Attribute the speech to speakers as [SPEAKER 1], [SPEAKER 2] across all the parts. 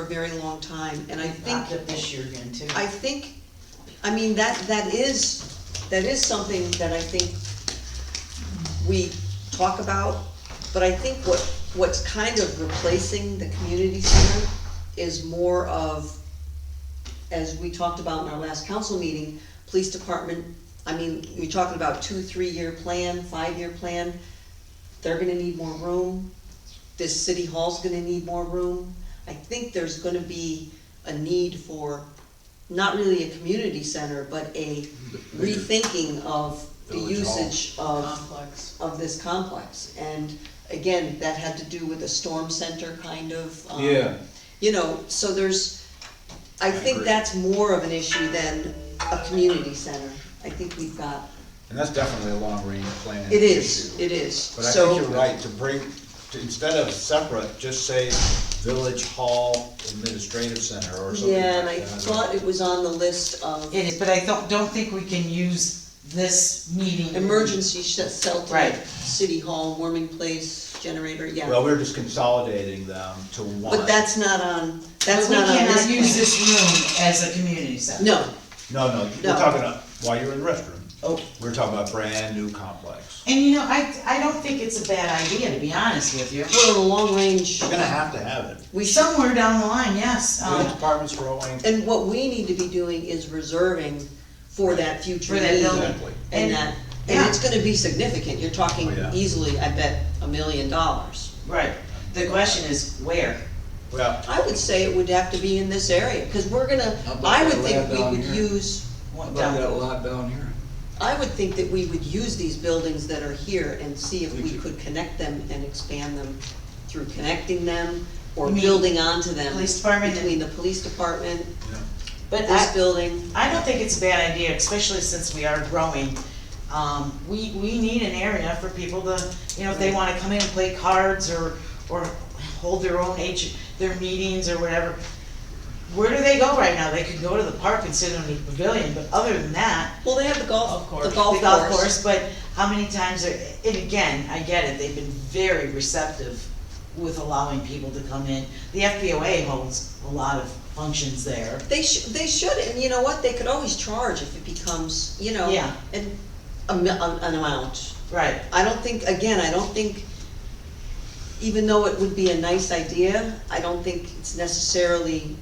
[SPEAKER 1] for a very long time, and I think,
[SPEAKER 2] Not that this year again too.
[SPEAKER 1] I think, I mean, that, that is, that is something that I think we talk about, but I think what, what's kind of replacing the community center is more of, as we talked about in our last council meeting, police department, I mean, you're talking about two, three-year plan, five-year plan, they're gonna need more room, this city hall's gonna need more room. I think there's gonna be a need for, not really a community center, but a rethinking of the
[SPEAKER 3] Village hall.
[SPEAKER 1] usage of
[SPEAKER 2] Complex.
[SPEAKER 1] of this complex. And again, that had to do with a storm center kind of. um,
[SPEAKER 3] Yeah.
[SPEAKER 1] You know, so there's, I
[SPEAKER 3] I
[SPEAKER 1] think
[SPEAKER 3] agree.
[SPEAKER 1] that's more of an issue than a community center. I think we've got,
[SPEAKER 3] And that's definitely a long-range plan.
[SPEAKER 1] it is,
[SPEAKER 3] issue.
[SPEAKER 1] it is,
[SPEAKER 3] But I think
[SPEAKER 1] so.
[SPEAKER 3] you're right, to bring, to, instead of separate, just say Village Hall Administrative Center or something like that.
[SPEAKER 1] Yeah, and I thought it was on the list of
[SPEAKER 2] It is, but I don't, don't think we can use this meeting.
[SPEAKER 1] emergency sh- shelter.
[SPEAKER 2] Right.
[SPEAKER 1] City hall, warming place, generator,
[SPEAKER 3] Well,
[SPEAKER 1] yeah.
[SPEAKER 3] we're just consolidating them to one.
[SPEAKER 1] But that's not on,
[SPEAKER 2] But
[SPEAKER 1] that's
[SPEAKER 2] we
[SPEAKER 1] not on this.
[SPEAKER 2] cannot use
[SPEAKER 1] plan.
[SPEAKER 2] this room as a community center.
[SPEAKER 1] No,
[SPEAKER 3] No, no,
[SPEAKER 1] No.
[SPEAKER 3] we're talking about, while you're in the restroom,
[SPEAKER 2] Oh.
[SPEAKER 3] we're talking about brand-new complex.
[SPEAKER 2] And you know, I, I don't think it's a bad idea, to be honest with you.
[SPEAKER 1] we're in a long range,
[SPEAKER 3] We're gonna have to have it.
[SPEAKER 1] we should
[SPEAKER 2] Somewhere down the line, yes,
[SPEAKER 1] Uh,
[SPEAKER 3] Village
[SPEAKER 2] um,
[SPEAKER 3] department's growing,
[SPEAKER 1] And what we need to be doing is reserving for that future
[SPEAKER 2] For that
[SPEAKER 1] need.
[SPEAKER 2] building.
[SPEAKER 3] exactly.
[SPEAKER 1] And
[SPEAKER 2] And-
[SPEAKER 1] that, and it's gonna be significant, you're talking
[SPEAKER 3] Oh, yeah.
[SPEAKER 1] easily, I bet, a million dollars.
[SPEAKER 2] right. The question is where?
[SPEAKER 3] Well,
[SPEAKER 1] I would say it would have to be in this area, cause we're gonna,
[SPEAKER 4] How about
[SPEAKER 1] I would
[SPEAKER 4] that
[SPEAKER 1] think
[SPEAKER 4] lab
[SPEAKER 1] we
[SPEAKER 4] down
[SPEAKER 1] would
[SPEAKER 4] here?
[SPEAKER 1] use,
[SPEAKER 2] What
[SPEAKER 4] What
[SPEAKER 2] down-
[SPEAKER 4] about that lot down here?
[SPEAKER 1] I would think that we would use these buildings that are here and see if we
[SPEAKER 4] Thank you.
[SPEAKER 1] could connect them and expand them through connecting them or
[SPEAKER 2] You mean
[SPEAKER 1] building onto them.
[SPEAKER 2] police department and-
[SPEAKER 1] Between the police department,
[SPEAKER 3] yeah.
[SPEAKER 2] But
[SPEAKER 1] this
[SPEAKER 2] I,
[SPEAKER 1] building.
[SPEAKER 2] I don't think it's a bad idea, especially since we are growing. Um, we, we need an area for people to, you know, if they wanna come in and play cards or, or hold their own age, their meetings or whatever. Where do they go right now? They could go to the park and sit in the pavilion, but other than that,
[SPEAKER 1] Well, they have the golf, the golf course.
[SPEAKER 2] The golf course, but how many times are, and again, I get it, they've been very receptive with allowing people to come in. The FPOA holds a lot of functions there.
[SPEAKER 1] They should, they should, and you know what, they could always charge if it becomes, you know,
[SPEAKER 2] Yeah.
[SPEAKER 1] an, a mi- an, an amount.
[SPEAKER 2] Right,
[SPEAKER 1] I don't think, again, I don't think, even though it would be a nice idea, I don't think it's necessarily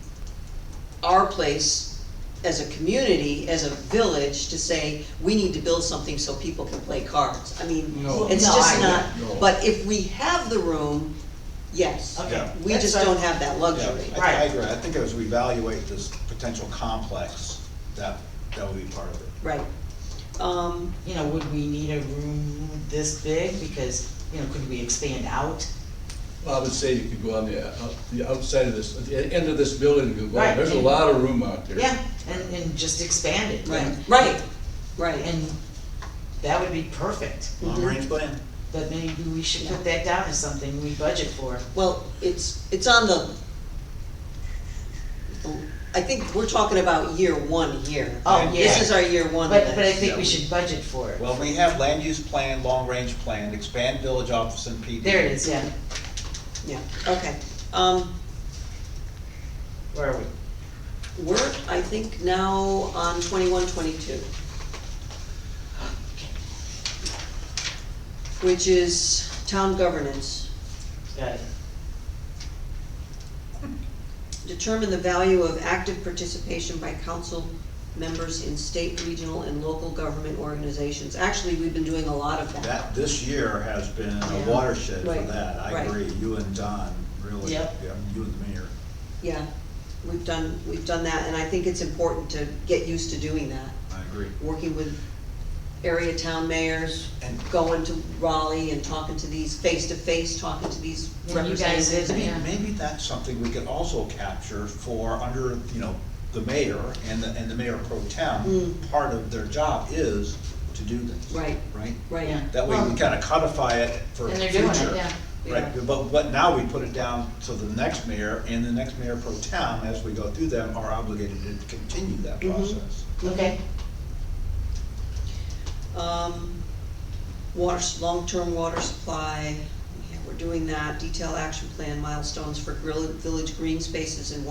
[SPEAKER 1] our place as a community, as a village, to say, we need to build something so people can play cards. I mean,
[SPEAKER 4] No.
[SPEAKER 1] it's
[SPEAKER 2] No,
[SPEAKER 1] just
[SPEAKER 2] I-
[SPEAKER 1] not,
[SPEAKER 4] No.
[SPEAKER 1] but if we have the room, yes.
[SPEAKER 2] okay.
[SPEAKER 3] Yeah.
[SPEAKER 1] We just
[SPEAKER 2] That's
[SPEAKER 1] don't
[SPEAKER 2] fine.
[SPEAKER 1] have that
[SPEAKER 3] Yeah,
[SPEAKER 1] luxury.
[SPEAKER 3] I, I
[SPEAKER 2] Right.
[SPEAKER 3] agree, I think as we evaluate this potential complex, that, that would be part of it.
[SPEAKER 1] Right. Um,
[SPEAKER 2] You know, would we need a room this big, because, you know, could we expand out?
[SPEAKER 4] Well, I would say you could go on the, out- the outside of this, at the end of this building, you could go,
[SPEAKER 2] Right.
[SPEAKER 4] on. there's a lot of room out there.
[SPEAKER 2] Yeah, and, and just expand it.
[SPEAKER 1] right,
[SPEAKER 2] and-
[SPEAKER 1] right, right.
[SPEAKER 2] And that would be perfect,
[SPEAKER 1] Mhm.
[SPEAKER 3] Long-range plan,
[SPEAKER 2] but maybe we should put that down as something we budget for.
[SPEAKER 1] Well, it's, it's on the, I think we're talking about year one here.
[SPEAKER 2] Oh, yeah.
[SPEAKER 1] This is our year one
[SPEAKER 2] But, but I
[SPEAKER 1] list.
[SPEAKER 2] think we should budget for it.
[SPEAKER 3] well, we have land use plan, long-range plan, expand village office and PD.
[SPEAKER 2] There it is, yeah,
[SPEAKER 1] Yeah, okay. Um,
[SPEAKER 2] where are we?
[SPEAKER 1] we're, I think, now on twenty-one, twenty-two. Which is town governance.
[SPEAKER 2] Got it.
[SPEAKER 1] Determine the value of active participation by council members in state, regional, and local government organizations. Actually, we've been doing a lot of that.
[SPEAKER 3] That, this year has been
[SPEAKER 1] Yeah.
[SPEAKER 3] a watershed for
[SPEAKER 1] Right,
[SPEAKER 3] that, I
[SPEAKER 1] right.
[SPEAKER 3] agree, you and Don, really, yeah,
[SPEAKER 2] Yep.
[SPEAKER 3] you and the mayor.
[SPEAKER 1] Yeah, we've done, we've done that, and I think it's important to get used to doing that,
[SPEAKER 3] I agree.
[SPEAKER 1] working with area town mayors,
[SPEAKER 3] And-
[SPEAKER 1] going to Raleigh and talking to these, face-to-face, talking to these
[SPEAKER 2] And you guys
[SPEAKER 1] representatives.
[SPEAKER 2] did,
[SPEAKER 3] Maybe,
[SPEAKER 2] yeah.
[SPEAKER 3] maybe that's something we could also capture for under, you know, the mayor and the, and the mayor pro tem.
[SPEAKER 1] Mm.
[SPEAKER 3] Part of their job is to do this.
[SPEAKER 1] Right.
[SPEAKER 3] Right?
[SPEAKER 1] Right,
[SPEAKER 2] Yeah.
[SPEAKER 3] That way we
[SPEAKER 2] Well-
[SPEAKER 3] kinda codify it for
[SPEAKER 2] And
[SPEAKER 3] future.
[SPEAKER 2] they're doing it, yeah.
[SPEAKER 1] Yeah.
[SPEAKER 3] Right, but, but now we put it down to the next mayor, and the next mayor pro town, as we go through them, are obligated to continue that
[SPEAKER 2] Mm-hmm.
[SPEAKER 1] Mhm.
[SPEAKER 3] process.
[SPEAKER 2] Okay.
[SPEAKER 1] um, water, long-term water supply, yeah, we're doing that, detail action plan, milestones for grill- village green spaces and